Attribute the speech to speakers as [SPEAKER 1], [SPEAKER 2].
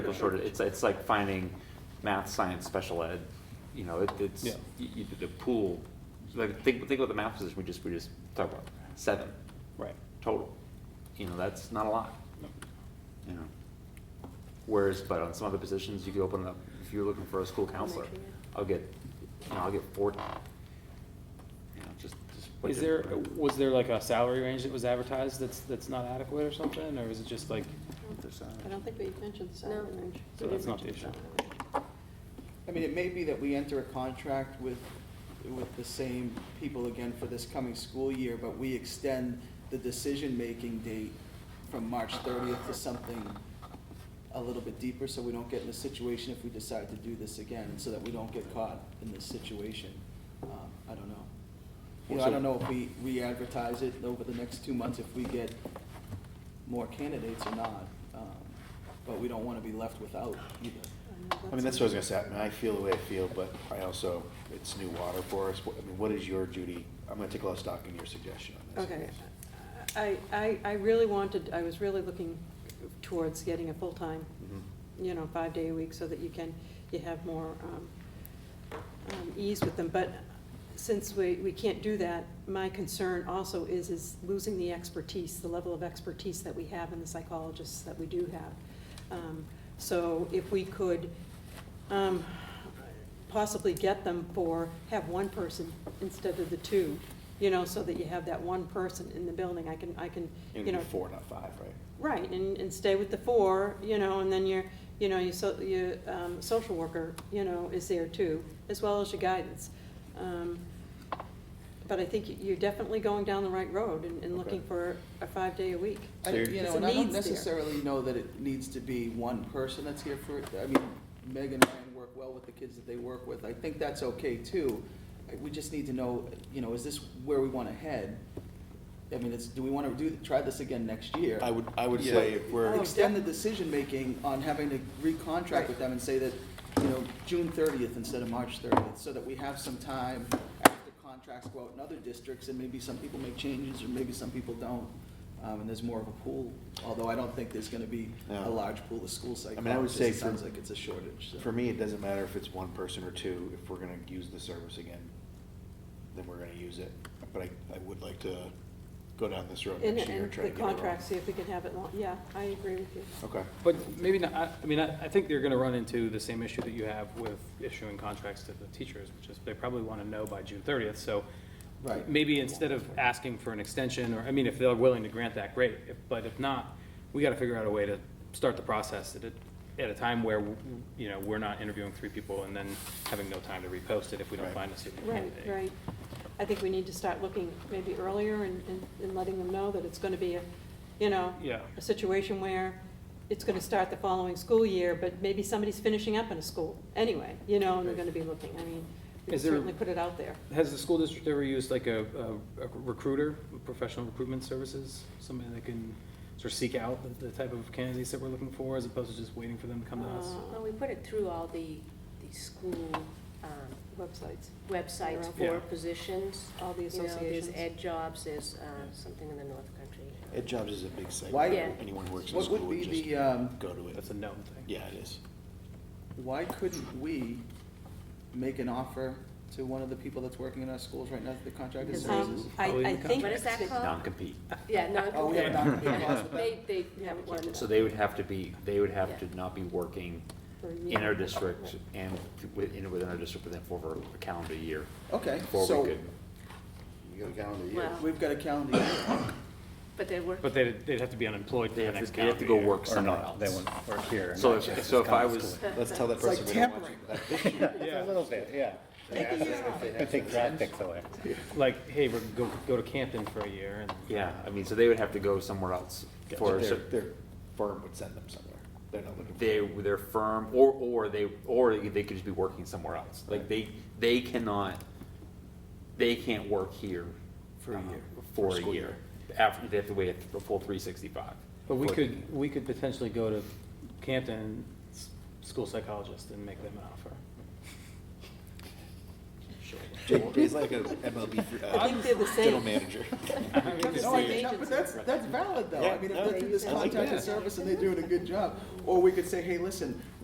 [SPEAKER 1] a shortage, it's, it's like finding math, science, special ed, you know, it, it's,
[SPEAKER 2] Yeah.
[SPEAKER 1] you, you- the pool, like, think, think about the math position we just, we just talked about, seven
[SPEAKER 2] Right.
[SPEAKER 1] total, you know, that's not a lot,
[SPEAKER 2] No.
[SPEAKER 1] you know. Whereas, but on some other positions, you could open it up, if you're looking for a school counselor,
[SPEAKER 3] Elementary, yeah.
[SPEAKER 1] I'll get, you know, I'll get forty. You know, just, just. what
[SPEAKER 2] Is there,
[SPEAKER 1] you're-
[SPEAKER 2] was there like a salary range that was advertised that's, that's not adequate or something, or is it just like,
[SPEAKER 1] There's, uh,
[SPEAKER 3] I don't think we mentioned the
[SPEAKER 4] No.
[SPEAKER 3] salary Um, range.
[SPEAKER 2] So that's not the issue.
[SPEAKER 5] I mean, it may be that we enter a contract with, with the same people again for this coming school year, but we extend the decision-making date from March thirtieth to something a little bit deeper, so we don't get in the situation if we decide to do this again, so that we don't get caught in this situation. Um, I don't know. You know, I don't know if we re-advertise it over the next two months, if we get more candidates or not, um, but we don't wanna be left without either.
[SPEAKER 6] I mean, that's what I was gonna say, I mean, I feel the way I feel, but I also, it's new water for us, What- I mean, what is your duty? I'm gonna take a lot of stock in your suggestion on this.
[SPEAKER 3] Okay, I, I, I really wanted, I was really looking towards getting a full-time,
[SPEAKER 6] Mhm.
[SPEAKER 3] you know, five-day a week so that you can, you have more, um, um, ease with them, but since we, we can't do that, my concern also is, is losing the expertise, the level of expertise that we have and the psychologists that we do have. Um, So if we could, um, possibly get them for, have one person instead of the two, you know, so that you have that one person in the building, I can, I can,
[SPEAKER 6] It
[SPEAKER 3] you
[SPEAKER 6] would
[SPEAKER 3] know.
[SPEAKER 6] be four, not five, right?
[SPEAKER 3] Right, and, and stay with the four, you know, and then your, you know, your, so- your, um, social worker, you know, is there too, as well as your guidance. Um, But I think you're definitely going down the right road and, and looking
[SPEAKER 6] Okay.
[SPEAKER 3] for a five-day a week.
[SPEAKER 5] I,
[SPEAKER 6] So you're-
[SPEAKER 5] you
[SPEAKER 3] It's
[SPEAKER 5] know,
[SPEAKER 3] a
[SPEAKER 5] and I don't
[SPEAKER 3] needs there.
[SPEAKER 5] necessarily know that it needs to be one person that's here for, it. I mean, Meg and Ryan work well with the kids that they work with, I think that's okay too. Uh, We just need to know, you know, is this where we wanna head? I mean, it's, do we wanna do, try this again next year?
[SPEAKER 6] I would, I would
[SPEAKER 5] Yeah.
[SPEAKER 6] say if we're,
[SPEAKER 3] Oh.
[SPEAKER 5] Extend the decision-making on having to recontract with them and say that, you know, June thirtieth instead of March thirtieth, so that we have some time after contracts go out in other districts, and maybe some people make changes, or maybe some people don't, um, and there's more of a pool, although I don't think there's gonna be
[SPEAKER 6] Yeah.
[SPEAKER 5] a large pool of school
[SPEAKER 6] I mean, I would
[SPEAKER 5] psychologists,
[SPEAKER 6] say
[SPEAKER 5] it
[SPEAKER 6] for-
[SPEAKER 5] sounds like it's a shortage, so.
[SPEAKER 6] for me, it doesn't matter if it's one person or two, if we're gonna use the service again, then we're gonna use it. But I, I would like to go down this road
[SPEAKER 3] And,
[SPEAKER 6] next year and
[SPEAKER 3] and
[SPEAKER 6] try to
[SPEAKER 3] the
[SPEAKER 6] get it right.
[SPEAKER 3] contract, see if we can have it long, yeah, I agree with you.
[SPEAKER 6] Okay.
[SPEAKER 2] but maybe not, I, I mean, I, I think they're gonna run into the same issue that you have with issuing contracts to the teachers, which is they probably wanna know by June thirtieth, so.
[SPEAKER 5] Right.
[SPEAKER 2] Maybe instead of asking for an extension, or, I mean, if they're willing to grant that, great, If- but if not, we gotta figure out a way to start the process at a, at a time where, you know, we're not interviewing three people and then having no time to repost it if we don't
[SPEAKER 6] Right.
[SPEAKER 2] find a suitable
[SPEAKER 3] Right,
[SPEAKER 2] candidate.
[SPEAKER 3] right. I think we need to start looking maybe earlier and, and- and letting them know that it's gonna be a, you know,
[SPEAKER 2] Yeah.
[SPEAKER 3] a situation where it's gonna start the following school year, but maybe somebody's finishing up in a school anyway, you know, and they're gonna be looking. I mean, we
[SPEAKER 2] Is there-
[SPEAKER 3] certainly put it out there.
[SPEAKER 2] Has the school district ever used like a, a- a recruiter, professional recruitment services? Somebody that can sort of seek out the, the type of candidates that we're looking for as opposed to just waiting for them to come to us?
[SPEAKER 3] Uh,
[SPEAKER 4] Well, we put it through all the, the school um,
[SPEAKER 3] Websites.
[SPEAKER 4] websites
[SPEAKER 2] Yeah.
[SPEAKER 4] for positions.
[SPEAKER 3] All the
[SPEAKER 4] You know,
[SPEAKER 3] associations.
[SPEAKER 4] There's Ed Jobs, there's uh, something in the North Country.
[SPEAKER 6] Ed Jobs is a big site.
[SPEAKER 5] Why-
[SPEAKER 4] Yeah.
[SPEAKER 6] Anyone who works in
[SPEAKER 5] What would
[SPEAKER 6] school would
[SPEAKER 5] be
[SPEAKER 6] just
[SPEAKER 5] the, um,
[SPEAKER 6] go to it.
[SPEAKER 2] That's a known thing.
[SPEAKER 6] Yeah, it is.
[SPEAKER 5] why couldn't we make an offer to one of the people that's working in our schools right now, the contracted
[SPEAKER 4] Because-
[SPEAKER 5] services?
[SPEAKER 3] Um, I,
[SPEAKER 2] Probably
[SPEAKER 3] I
[SPEAKER 2] in the
[SPEAKER 3] think.
[SPEAKER 4] What is that
[SPEAKER 3] uh,
[SPEAKER 4] called?
[SPEAKER 1] Non-compete,
[SPEAKER 4] Yeah, no.
[SPEAKER 5] Oh, we have
[SPEAKER 2] Yeah.
[SPEAKER 5] not.
[SPEAKER 4] Yeah. They, they have
[SPEAKER 3] Yeah.
[SPEAKER 4] one.
[SPEAKER 1] so they would have to be, they would have to not be working
[SPEAKER 3] for a year.
[SPEAKER 1] in our district and within, within our district within four for a calendar year.
[SPEAKER 5] Okay,
[SPEAKER 1] Before we
[SPEAKER 5] so-
[SPEAKER 1] could,
[SPEAKER 6] You got a calendar year.
[SPEAKER 4] Well,
[SPEAKER 5] We've got a calendar year.
[SPEAKER 4] But they're working.
[SPEAKER 2] But they'd, they'd have to be unemployed for
[SPEAKER 1] they
[SPEAKER 2] the
[SPEAKER 1] have to,
[SPEAKER 2] next
[SPEAKER 1] they have
[SPEAKER 2] calendar
[SPEAKER 1] to
[SPEAKER 2] year.
[SPEAKER 1] go work
[SPEAKER 7] Or
[SPEAKER 1] somewhere
[SPEAKER 7] not,
[SPEAKER 1] else.
[SPEAKER 7] they won't work here.
[SPEAKER 1] So
[SPEAKER 7] not
[SPEAKER 1] if,
[SPEAKER 7] just
[SPEAKER 1] so if I
[SPEAKER 7] come to
[SPEAKER 1] was,
[SPEAKER 7] school.
[SPEAKER 6] Let's tell that
[SPEAKER 5] It's like
[SPEAKER 6] person we don't want
[SPEAKER 5] tampering.
[SPEAKER 6] you.
[SPEAKER 7] Yeah, a little bit, yeah.
[SPEAKER 3] Take a year off.
[SPEAKER 7] I take tactics away.
[SPEAKER 2] Like, hey, we're, go, go to Canton for a year and.
[SPEAKER 1] yeah, I mean, so they would have to go somewhere else for, a
[SPEAKER 6] Their,
[SPEAKER 1] cer-
[SPEAKER 6] their firm would send them somewhere. They're not looking for.
[SPEAKER 1] they, their firm, or, or they, or they could just be working somewhere else. Like, they, they cannot, they can't work here.
[SPEAKER 5] For a
[SPEAKER 1] uh,
[SPEAKER 5] year.
[SPEAKER 1] For a
[SPEAKER 6] school
[SPEAKER 1] year. After, they have to wait a full three sixty-five.
[SPEAKER 2] But we could, we could potentially go to Canton, s- school psychologist and make them an offer.
[SPEAKER 6] He's like an MLB
[SPEAKER 3] I think they're the
[SPEAKER 6] uh,
[SPEAKER 3] same.
[SPEAKER 6] general manager.
[SPEAKER 3] It's
[SPEAKER 5] No, I-
[SPEAKER 3] same
[SPEAKER 5] no,
[SPEAKER 3] agency.
[SPEAKER 5] But that's, that's valid though. I mean, if
[SPEAKER 6] Yeah,
[SPEAKER 5] they're through this
[SPEAKER 6] I like
[SPEAKER 5] contracted
[SPEAKER 6] that.
[SPEAKER 5] service and they're doing a good job, or we could say, hey, listen,